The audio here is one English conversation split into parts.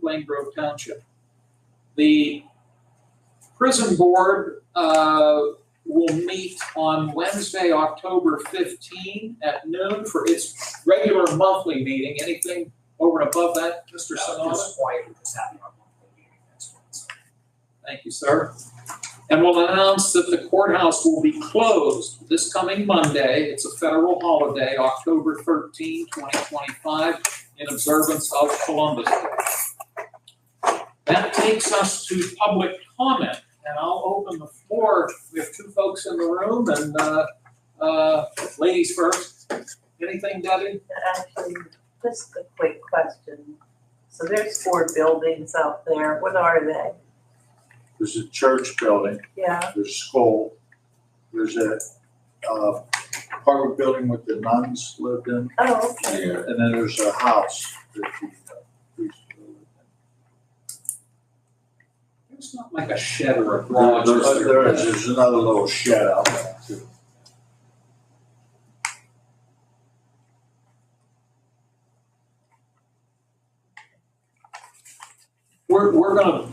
Plain Grove Township. The prison board uh, will meet on Wednesday, October 15 at noon for its regular monthly meeting. Anything over and above that, Mr. Sanada? Just quiet, we just having our monthly meeting next month, so. Thank you, sir. And we'll announce that the courthouse will be closed this coming Monday. It's a federal holiday, October 13, 2025, in observance of Columbus Day. That takes us to public comment, and I'll open the floor. We have two folks in the room, and uh, uh, ladies first. Anything, Debbie? Actually, just a quick question. So there's four buildings out there. What are they? There's a church building, Yeah, there's a school, there's a, uh, apartment building with the nuns lived in, oh, okay. and then there's a house that the uh, priest lived It's not like a shed or a in. garage. There's, there is, there's another little shed out there too. We're, we're gonna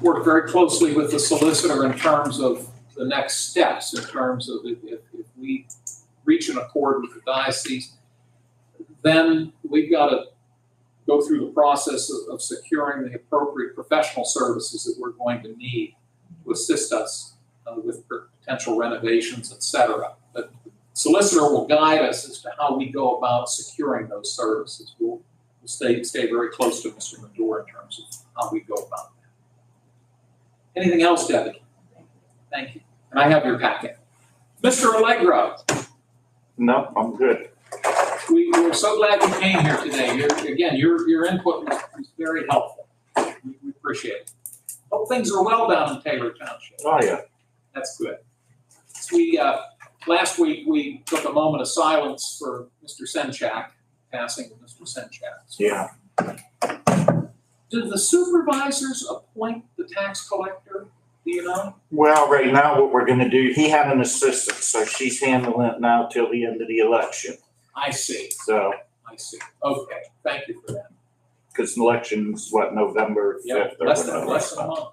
work very closely with the solicitor in terms of the next steps, in terms of if, if, if we reach an accord with the diocese, then we've gotta go through the process of, of securing the appropriate professional services that we're going to need to assist us uh, with potential renovations, et cetera. But solicitor will guide us as to how we go about securing those services. We'll we'll stay, stay very close to Mr. Madore in terms of how we go about that. Anything else, Debbie? Thank you. And I have your packet. Mr. Allegro, No, I'm good. we, we're so glad you came here today. Your, again, your, your input was, was very helpful. We, we appreciate it. Hope things are well down in Taylor Township. Oh, yeah. That's good. We, uh, last week, we took a moment of silence for Mr. Senchak, passing of Mr. Senchak. So Yeah. Do the supervisors appoint the tax collector, do you know? Well, right now, what we're gonna do, he had an assistant, so she's handling it now till the end of the election. I see, So, I see. Okay, thank you for that. because election's what, November Yeah, fifth or less than, less than a whatever.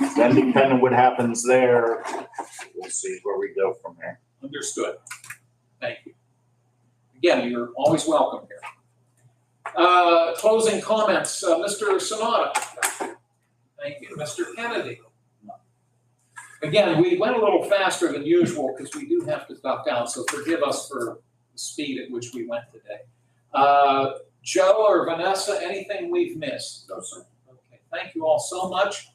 month. Then depending what happens there, we'll see where we go from there. Understood. Thank you. Again, you're always welcome here. Uh, closing comments, uh, Mr. Sonata. Thank you, Mr. Kennedy. Again, we went a little faster than usual because we do have to stop down, so forgive us for the speed at which we went today. Uh, Joe or Vanessa, anything we've missed? No, sir. Okay, thank you all so much.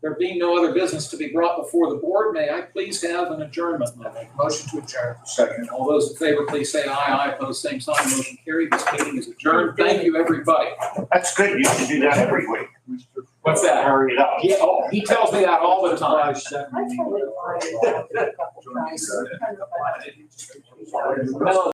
There being no other business to be brought before the board, may I please have an adjournment motion? Motion to adjourn. Second. All those in favor, please say aye. Aye, opposed, same sign. Motion carried. This meeting is adjourned. Thank you, everybody. That's good. You should do that every week. Mr. What's that? Hurry it up. Yeah, oh, he tells me that all the time. I tried to find it a couple times. Join you, uh, Kind of a- No,